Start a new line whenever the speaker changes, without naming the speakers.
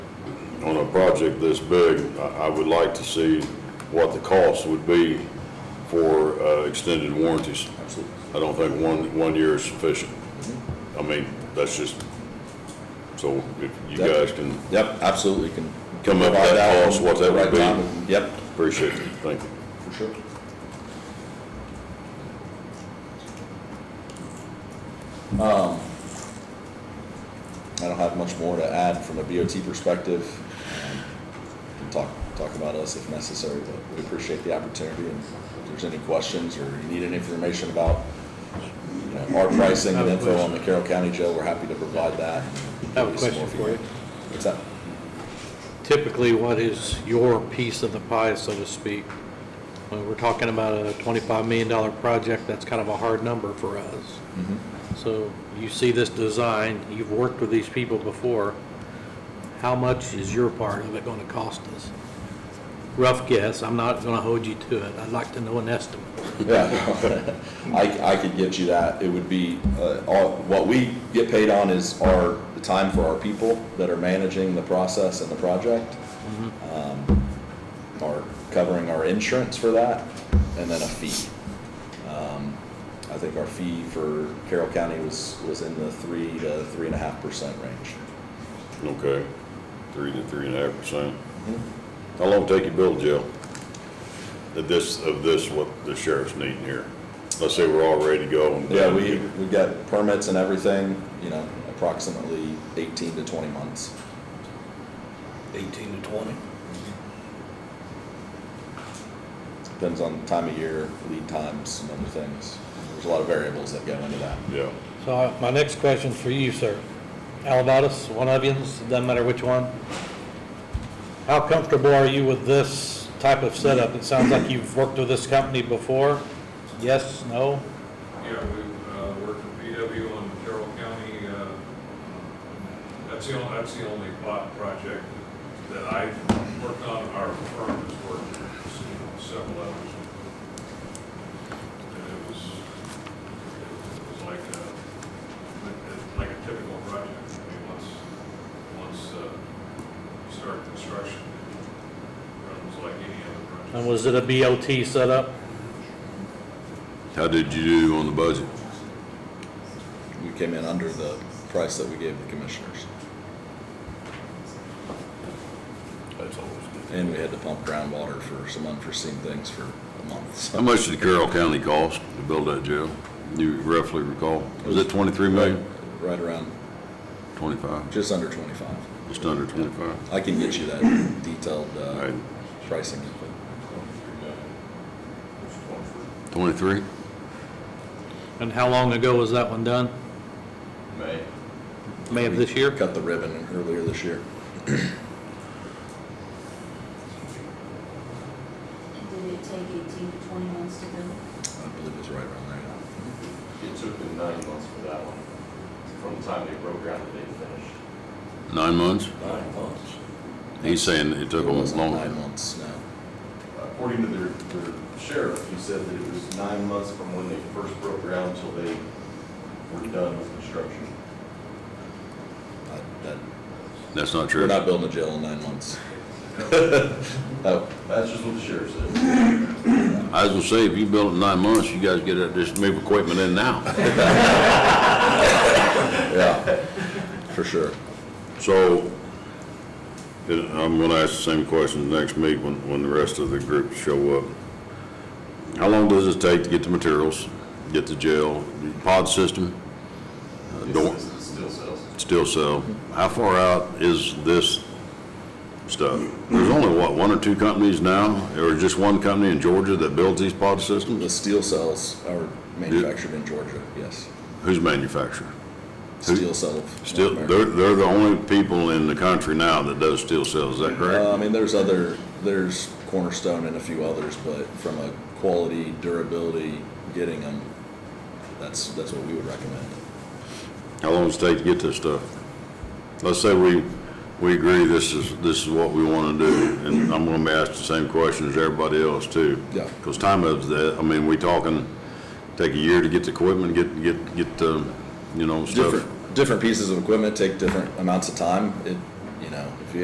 on a project this big, I, I would like to see what the cost would be for, uh, extended warranties.
Absolutely.
I don't think one, one year is sufficient. I mean, that's just, so if you
Yep.
guys can
Yep, absolutely, can.
Come up with that
provide that
cost, what that would
right
be.
time. Yep,
appreciate it, thank you.
for sure. Um, I don't have much more to add from a BOT perspective. Um, Can talk, talk about us if necessary, but we appreciate the opportunity, and if there's any questions or you need any information about, you know, our pricing and info on the Carroll County Jail, we're happy to provide that.
I have a
Give you some more
question for you.
feedback. What's that?
Typically, what is your piece of the pie, so to speak? When we're talking about a $25 million project, that's kind of a hard number for us. So you see this design, you've worked with these people before. How much is your part of it going to cost us? Rough guess, I'm not going to hold you to it. I'd like to know an estimate.
Yeah, I, I could get you that. It would be, uh, all, what we get paid on is our, the time for our people that are managing the process and the project. Um, Our, covering our insurance for that, and then a fee. Um, I think our fee for Carroll County was, was in the three to three and a half percent range.
Okay, three to three and a half percent.
Mm-hmm.
How long take you build jail? Of this, of this, what the sheriff's needing here? Let's say we're all ready to go. and-
Yeah, we, we got permits and everything, you know, approximately eighteen to twenty months.
18 to 20.
Depends on time of year, lead times, and other things. There's a lot of variables that go into that.
Yeah,
So I- my next question's for you, sir. Alabatus, one onions, doesn't matter which one. How comfortable are you with this type of setup? It sounds like you've worked with this company before. Yes, no?
Yeah, we uh, work with PW on Carroll County. uh, That's the only, that's the only bot project that I worked on, our firm has worked on several others. And it was, it was like a, like a typical project. I mean, once, once uh, you start construction, it runs like any other
And
project.
was it a BOT setup?
how did you do on the budget?
We came in under the price that we gave the commissioners,
That's always good.
and we had to pump groundwater for some unforeseen things for a month.
How
so.
much did Carroll County cost to build that jail? You roughly recall? Was it twenty-three million?
Right around,
Twenty-five,
just under twenty-five.
just under twenty-five?
I can get you that detailed uh,
Right.
pricing info.
Twenty-three?
And how long ago was that one done?
May.
May of this year?
Cut the ribbon earlier this year.
Did it take eighteen to twenty months to build?
I believe it was right around there.
It took them nine months for that one, from the time they broke ground to they finished.
Nine months?
Nine months.
He's saying it took
It
almost
wasn't
longer.
Nine months, no.
According to their, their sheriff, he said that it was nine months from when they first broke ground till they were done with construction.
I- That,
That's not true.
we're not building a jail in nine months. Oh,
That's just what the sheriff said.
I was gonna say, if you build it in nine months, you guys get it, just move equipment in now.
yeah, for sure.
So, and I'm gonna ask the same question next meet when, when the rest of the group show up. How long does it take to get the materials, get the jail, the pod system? uh, Door,
It's- it's Still sells.
steel cell, how far out is this stuff? There's only, what, one or two companies now, or just one company in Georgia that builds these pod systems?
The steel cells are manufactured in Georgia, yes.
Who's manufacturer? Who-
Steel cell.
Steel, they're, they're the only people in the country now that does steel cells, is that correct?
Uh, I mean, there's other, there's Cornerstone and a few others, but from a quality, durability, getting them, that's, that's what we would recommend.
How long does it take to get this stuff? Let's say we, we agree this is, this is what we want to do, and I'm going to be asked the same question as everybody else too.
Yeah.
Because time of the, I mean, we talking, take a year to get the equipment, get, get, get the, you know, stuff.
Different, different pieces of equipment take different amounts of time. It, you know, if you